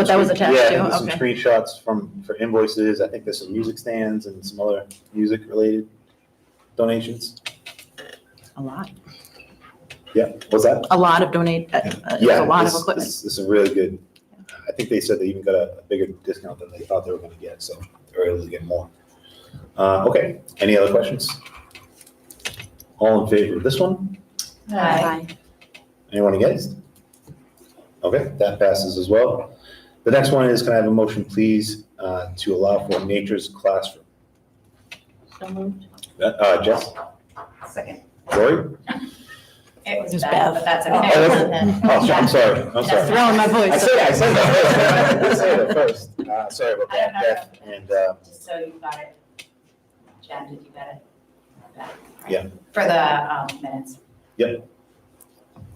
But that was attached Yeah, and to, some okay. screenshots from, for invoices, I think there's some music stands and some other music-related donations. A lot, Yeah, was that? a lot of donate, uh, uh, it's Yeah, a lot of this- equipment. This this is really good. I think they said they even got a a bigger discount than they thought they were gonna get, so they're able to get more. Uh, okay, any other questions? All in favor of this one? Anyone against? Okay, that passes as well. The next one is, can I have a motion, please, uh, to allow for nature's classroom? So moved. Uh, Uh, Jess, Second. Lori? It was It was bad, Bev. but that's Oh, okay. Oh, so- I'm sorry, I'm Yeah. sorry. Throwing my I voice. said, I said that first. I said that first. Uh, sorry about that, Beth, and, uh, Just so you got it. Jen, did you get it? Back, right? Yeah. For the um, minutes.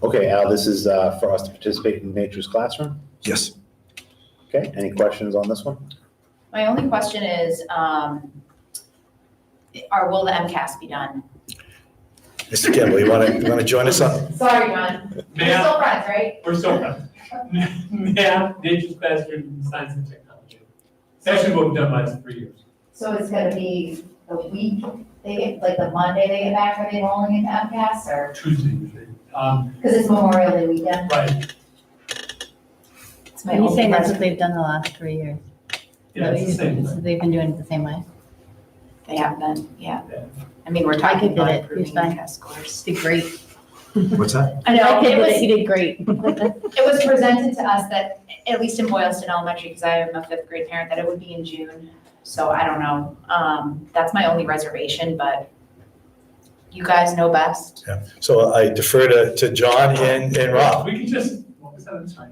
Okay, Al, this is uh, for us to participate in Nature's Classroom. Yes. Okay, any questions on this one? My only question is, um, or will the MCAS be done? Mr. Kimball, you want to, you want to join us on? Sorry, Ron. We're Math, still friends, right? we're so proud. Math, nature's classroom, science and technology. Session book done last three years. So it's gonna be the week they get, like the Monday they get back, are they rolling into MCAS or? Tuesday usually. Um, Because it's Memorial Day weekend. right, It's my Are you only saying that's question. what they've done the last three years? yeah, it's the same So thing. They've been doing it the same way? They have been, yeah. Yeah. I mean, we're I talking could about get it. improving You're fine. MCAS scores. Did great. What's that? I know, My kid it did was, it, he did great. it was presented to us that, at least in Boylston Elementary, because I am a fifth grade parent, that it would be in June. So I don't know. Um, that's my only reservation, but you guys know best. So I defer to, to John and, and Rob. Uh, We can just, what was that, I'm sorry. I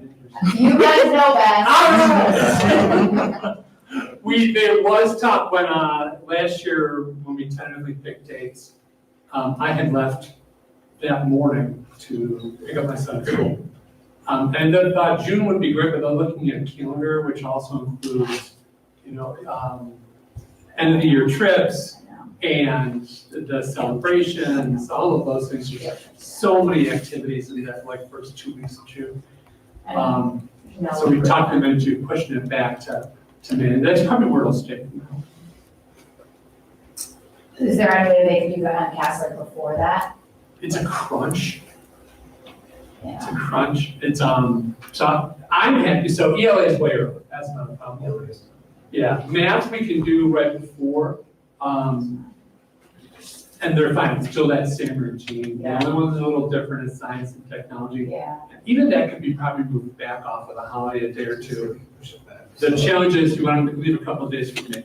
didn't hear you. You guys know I remember. We, there was talk when, uh, last year, when we tentatively picked dates, um, I had left that morning to pick up my son at school. Um, and then, uh, June would be great, but they're looking at calendar, which also includes, you know, um, end of the year trips and the celebrations, all of those things. There's So many activities in that, like, first two weeks of June. Um, so we talked them into pushing it back to, to May, and that's probably where it'll stay. Is there any way they can do the MCAS like before that? It's a crunch, it's Yeah. a crunch, it's, um, so I'm happy, so ELA is way early, that's not a problem. Yeah, math we can do right before, um, and they're fine, it's still that same routine. The only one that's a little different is science and technology. Yeah. Even that could be probably moved back off of the holiday a day or two. The challenge is you want them to leave a couple of days for makeup.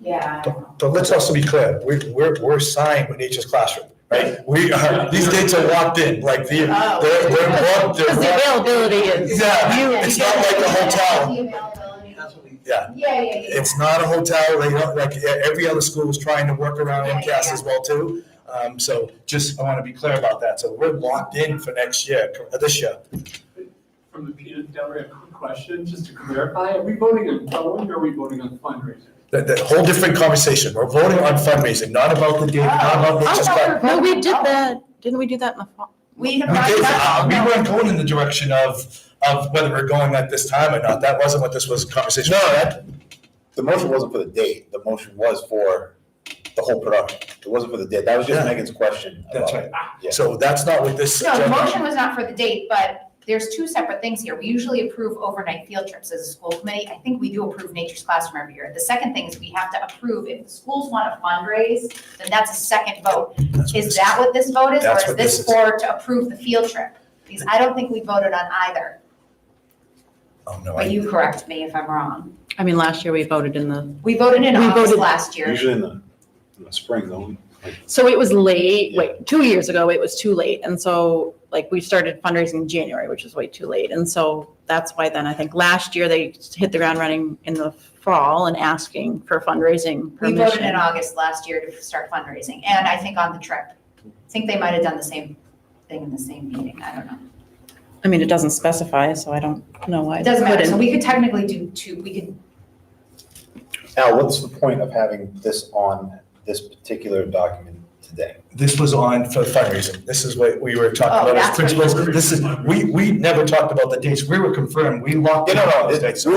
Yeah. I know. But let's also be clear, we, we're, we're signed with Nature's Classroom, right? We are, these dates are locked in, like the, Oh. they're, they're locked, they're Because the locked. availability is. Yeah, it's not like a hotel. The availability. Yeah. Yeah, yeah, yeah. It's not a hotel, they don't, like, e- every other school is trying to work around MCAS as well too. Um, so just, I want to be clear about that. So we're locked in for next year, uh, this year. From the peanut gallery, a quick question, just to clarify, are we voting on going or are we voting on fundraising? That, that whole different conversation. We're voting on fundraising, not about the date, not Oh. about I Nature's Classroom. thought, we were- no, we did that, didn't we do that in the fall? We have We not. did, uh, touched- we no. weren't going in the direction of, of whether we're going at this time or not. That wasn't what this was a conversation. No, that. The motion wasn't for the date, the motion was for the whole production. It wasn't for the date, that was just Yeah. Megan's question. That's about- right. So that's not what this. No, the motion was not for the date, but there's two separate things here. We usually approve overnight field trips as a school committee. I think we do approve Nature's Classroom every year. The second thing is we have to approve, if the schools want to fundraise, then that's a second vote. That's what Is this that what this vote is, or That's is what this this is. for to approve the field trip? Because I don't think we voted on either, Oh, no, but I, you correct me if I'm wrong. I mean, last year we voted in the, We voted in We August voted- last year. Usually in the, in the spring, though. so it was late, wait, two years ago, it was too late. And so, like, we started fundraising in January, which is way too late. And so that's why then I think last year they hit the ground running in the fall and asking for fundraising We voted in permission. August last year to start fundraising, and I think on the trip. I think they might have done the same thing in the same meeting, I don't know. I mean, it doesn't specify, so I don't know why. It doesn't matter, so couldn't. we could technically do two, we could, Al, what's the point of having this on this particular document today? this was on for fundraising. This is what we were Oh, talking about that's as what you- principals. This is, we, we never talked about the dates. We were confirmed. We locked. Yeah, in no, no, on those it- dates. we